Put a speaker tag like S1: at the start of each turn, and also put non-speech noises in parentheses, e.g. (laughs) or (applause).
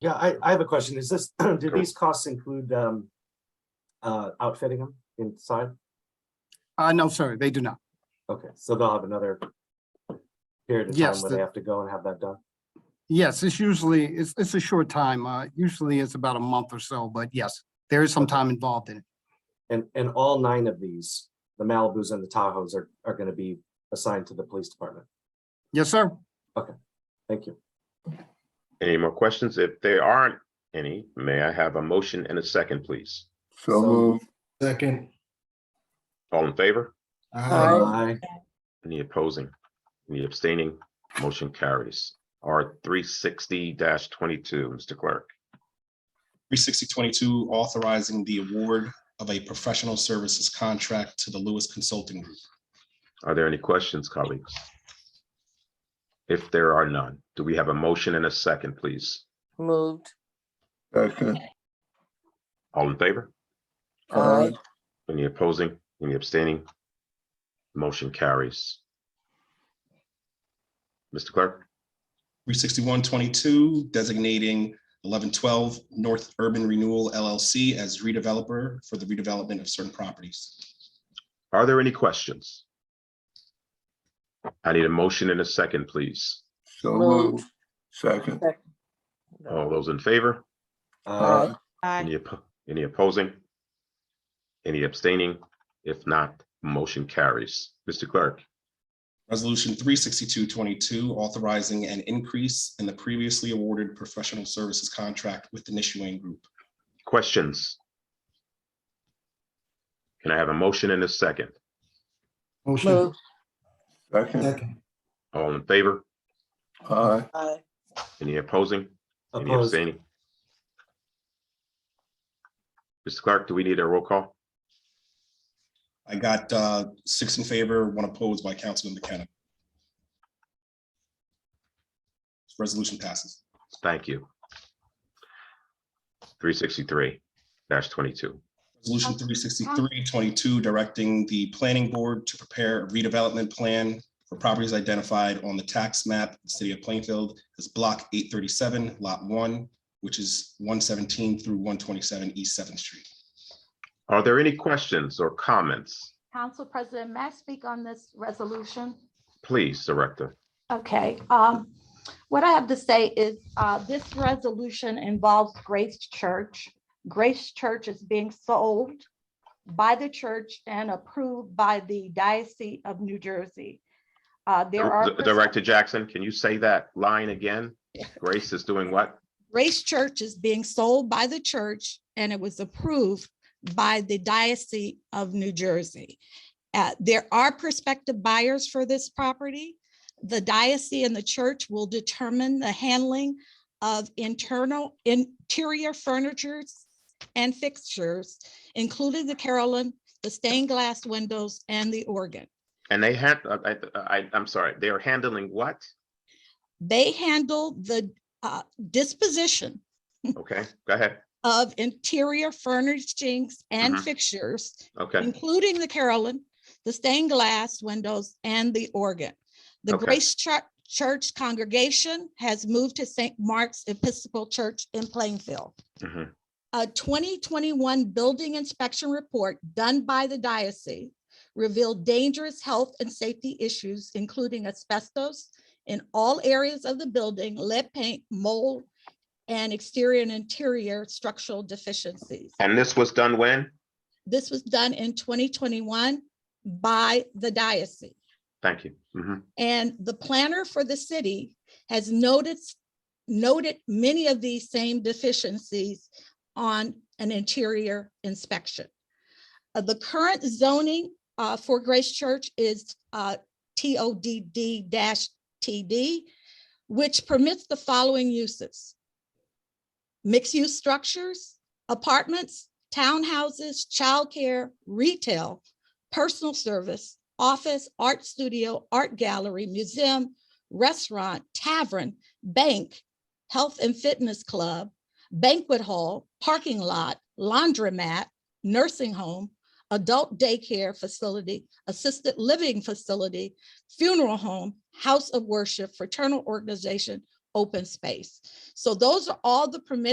S1: Yeah, I, I have a question. Is this, (clears throat) do
S2: Sure.
S1: these costs include, um, uh, outfitting them inside?
S3: Uh, no, sir, they do not.
S1: Okay, so they'll have another period of time
S3: Yes,
S1: where they
S3: the-
S1: have to go and have that done?
S3: Yes, it's usually, it's, it's a short time. Uh, usually it's about a month or so, but yes, there is some time involved in it.
S1: And, and all nine of these, the Malibus and the Tahoes are, are gonna be assigned to the police department.
S3: Yes, sir.
S1: Thank you.
S2: Any more questions? If there aren't any, may I have a motion and a second, please?
S1: So-
S4: So move.
S5: Second.
S2: All in favor?
S5: Aye.
S1: Aye.
S2: Any opposing? Any abstaining? Motion carries. R three sixty twenty-two, Mr. Clerk.
S6: 36022, authorizing the award of a professional services contract to the Lewis Consulting Group.
S2: Are there any questions, colleagues? If there are none, do we have a motion and a second, please?
S7: Moved.
S4: Second.
S2: All in favor?
S7: Aye.
S2: Any opposing? Any abstaining? Motion carries. Mr. Clerk,
S6: 36122, designating 1112 North Urban Renewal LLC as redeveloper for the redevelopment of certain properties.
S2: are there any questions? I need a motion and a second, please.
S4: So
S7: Move.
S4: move. Second.
S2: All those in favor?
S1: Aye.
S3: Uh,
S2: Any, oppo- any opposing? Any abstaining? If not, motion carries. Mr. Clerk,
S6: Resolution 36222, authorizing an increase in the previously awarded professional services contract with the Nishwayne Group.
S2: questions? Can I have a motion and a second?
S5: Motion.
S7: Moved.
S4: Second.
S5: Second.
S2: All in favor?
S4: Aye.
S7: Aye.
S2: Any opposing? Any
S1: Opposed?
S2: abstaining? Mr. Clark, do we need a roll call?
S6: I got uh, six in favor, one opposed by Councilman McKenna. Resolution passes.
S2: Thank you. Three sixty-three twenty-two.
S6: Resolution 363-22, directing the planning board to prepare a redevelopment plan for properties identified on the tax map, of the city of Plainfield, as Block 837, Lot 1, which is 117 through 127 East 7th Street.
S2: Are there any questions or comments?
S8: Council President, may I speak on this resolution?
S2: Please, Director.
S8: Okay, um, what I have to say is, uh, this resolution involves Grace Church. Grace Church is being sold by the church and approved by the Diocese of New Jersey. Uh, there are.
S2: D- Director Jackson, can you say that line again? Grace is doing what?
S8: Grace Church is being sold by the church and it was approved by the Diocese of New Jersey. Uh, there are prospective buyers for this property. The diocese and the church will determine the handling of internal interior furnitures and fixtures, including the Carolyn, the stained glass windows and the organ.
S2: And they had, uh, I, I, I'm sorry, they are handling
S8: (laughs)
S2: what?
S8: They handle the uh, disposition
S2: Okay, go ahead.
S8: of interior furnishings and
S2: Mhm.
S8: fixtures,
S2: Okay,
S8: including the Carolyn, the stained glass windows, and the organ. The
S2: Okay.
S8: Grace Chur- Church congregation has moved to St. Mark's Episcopal Church in Plainfield.
S2: Mhm.
S8: A 2021 building inspection report done by the diocese revealed dangerous health and safety issues, including asbestos in all areas of the building, lead paint, mold, and exterior and interior structural deficiencies.
S2: and this was done when?
S8: This was done in 2021 by the diocese.
S2: Thank you. Mhm.
S8: And the planner for the city has noted, noted many of these same deficiencies on an interior inspection. Uh, The current zoning uh, for Grace Church is uh, TODD TD, which permits the following uses. Mixed-use structures, apartments, townhouses, childcare, retail, personal service, office, art studio, art gallery, museum, restaurant, tavern, bank, health and fitness club, banquet hall, parking lot, laundromat, nursing home, adult daycare facility, assisted living facility, funeral home, house of worship, fraternal organization, open space. So those are all the permitted